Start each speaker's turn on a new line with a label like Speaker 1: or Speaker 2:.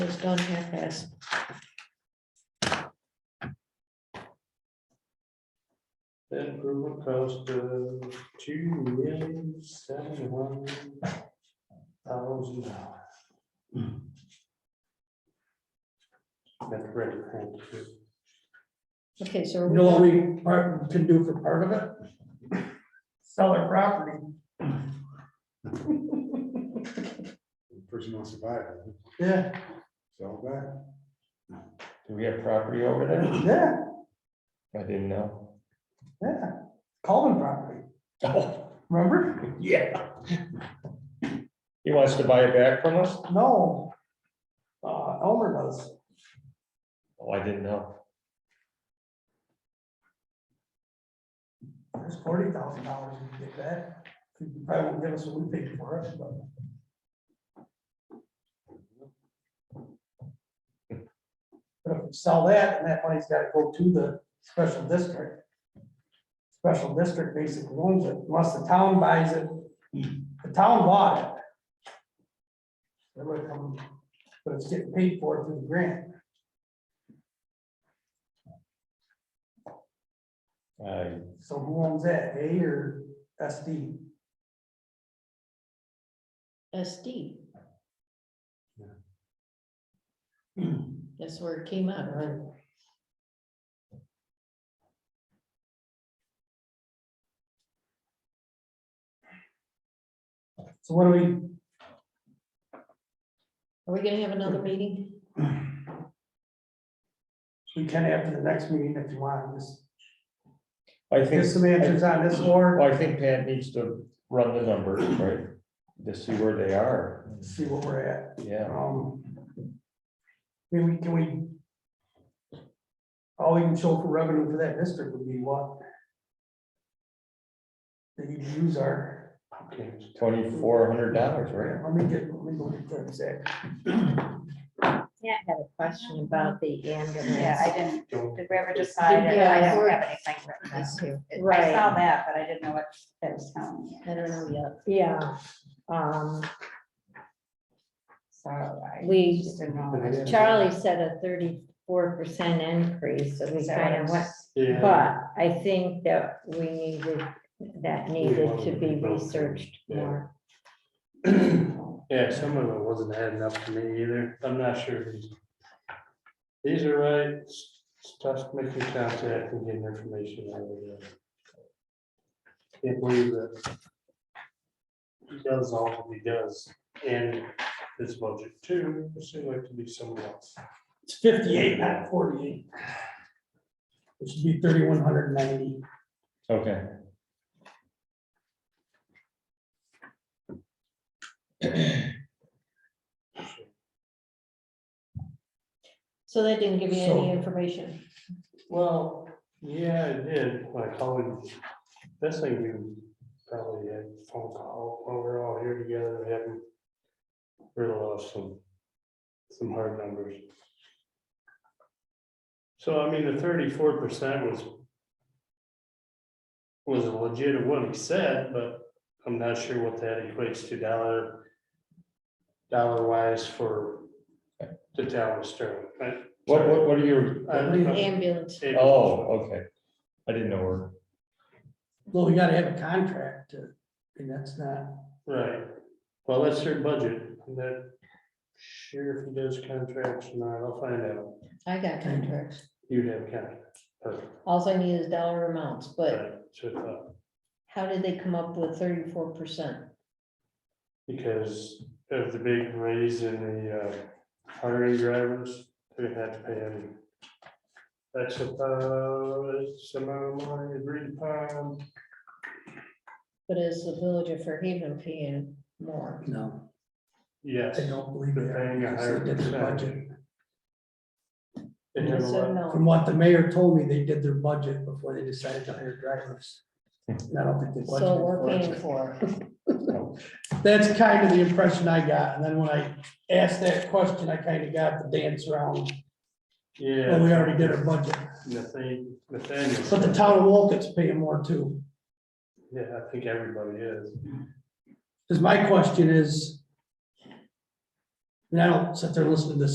Speaker 1: was done half past.
Speaker 2: That improvement cost of two million seventy-one thousand dollars. That's record.
Speaker 1: Okay, so. are
Speaker 3: You
Speaker 1: we
Speaker 3: know what
Speaker 1: done?
Speaker 3: we part- can do for part of it? Sell our property.
Speaker 4: Person wants to buy it,
Speaker 3: Yeah,
Speaker 4: sell it back.
Speaker 5: Do we have property over there?
Speaker 3: yeah,
Speaker 5: I didn't know.
Speaker 3: yeah. Coleman property,
Speaker 5: Oh,
Speaker 3: remember?
Speaker 5: yeah. He wants to buy it back from us?
Speaker 3: No. Uh, Elmer does.
Speaker 5: Oh, I didn't know.
Speaker 3: There's forty thousand dollars we can get that. He Probably won't give us what we paid for it, but. But if we sell that, and that money's gotta go to the special district. Special district basically owns it, unless the town buys it, the town bought it. It would come, um, but it's getting paid for through the grant.
Speaker 5: I
Speaker 3: So who owns that, A or SD?
Speaker 1: SD. That's where it came out, right?
Speaker 3: So what do we,
Speaker 1: Are we gonna have another meeting?
Speaker 3: We can after the next meeting if you want, just
Speaker 5: I
Speaker 3: get
Speaker 5: think,
Speaker 3: some answers on this or
Speaker 5: well, I think Pat needs to run the numbers, right? To see where they are.
Speaker 3: see what we're at.
Speaker 5: Yeah,
Speaker 3: Um. I mean, we can we? All we can show for revenue for that district would be what? The EDUs are,
Speaker 2: Okay.
Speaker 5: twenty-four hundred dollars, right?
Speaker 3: let me get, let me go get that exact.
Speaker 6: Yeah,
Speaker 1: I had a question about the
Speaker 6: yeah,
Speaker 1: ambulance.
Speaker 6: I didn't,
Speaker 2: Don't-
Speaker 6: did we ever decide? it?
Speaker 1: Yeah,
Speaker 6: I don't
Speaker 1: we're-
Speaker 6: have anything written down. I
Speaker 1: Right.
Speaker 6: saw that, but I didn't know what that was telling me.
Speaker 1: I don't know yet.
Speaker 7: Yeah, um,
Speaker 6: So I
Speaker 7: We-
Speaker 6: just didn't know.
Speaker 7: Charlie said a thirty-four percent increase, so we
Speaker 6: Is that what
Speaker 7: kind
Speaker 6: it
Speaker 7: of went,
Speaker 6: was?
Speaker 2: Yeah,
Speaker 7: but I think that we needed, that needed to be researched more.
Speaker 2: yeah, some of it wasn't adding up to me either. I'm not sure. these- These are right, S- stuff making contact and getting information. out of it. Can't believe that. He does all that he does and this budget too, it seemed like to be someone else.
Speaker 3: It's fifty-eight, not forty-eight. It should be thirty-one hundred ninety.
Speaker 5: Okay.
Speaker 1: So that didn't give you any
Speaker 3: So-
Speaker 1: information.
Speaker 2: Well, yeah, I did, my colleague, that's like we probably had a phone call, while we're all here together, and having real off some, some hard numbers. So I mean, the thirty-four percent was was a legit of what he said, but I'm not sure what that equates to dollar dollar wise for the town of Sterling. I-
Speaker 5: What, what, what are your,
Speaker 2: I- I-
Speaker 1: Ambulance.
Speaker 5: oh, okay. I didn't know where.
Speaker 3: Well, we gotta have a contract to, and that's not,
Speaker 2: Right, well, that's their budget, and that sheriff does contracts, and I'll find out,
Speaker 1: I got contracts.
Speaker 2: you'd have contracts. Perfect.
Speaker 1: All I need is dollar amounts, but
Speaker 2: Right, so uh, I thought,
Speaker 1: how did they come up with thirty-four percent?
Speaker 2: Because of the big raise in the uh, hiring drivers, they had to pay them. That's about, some amount of money agreed upon,
Speaker 1: But is the village of Fairhaven paying more?
Speaker 3: no,
Speaker 2: yes.
Speaker 3: I don't believe
Speaker 2: They're
Speaker 3: that.
Speaker 2: paying a
Speaker 3: Because
Speaker 2: higher
Speaker 3: they did the
Speaker 2: percentage.
Speaker 3: budget.
Speaker 2: They have a lot-
Speaker 1: So no.
Speaker 3: From what the mayor told me, they did their budget before they decided to hire drivers. And I don't think they
Speaker 1: So we're paying
Speaker 3: budgeted for
Speaker 1: for, it.
Speaker 3: it. That's kind of the impression I got. And then when I asked that question, I kind of got the dance around.
Speaker 2: Yeah.
Speaker 3: Well, we already did our budget,
Speaker 2: Nathan, Nathaniel.
Speaker 3: but the town of Wolcott's paying more too.
Speaker 2: Yeah, I think everybody is.
Speaker 3: Because my question is, and I don't sit there and listen to this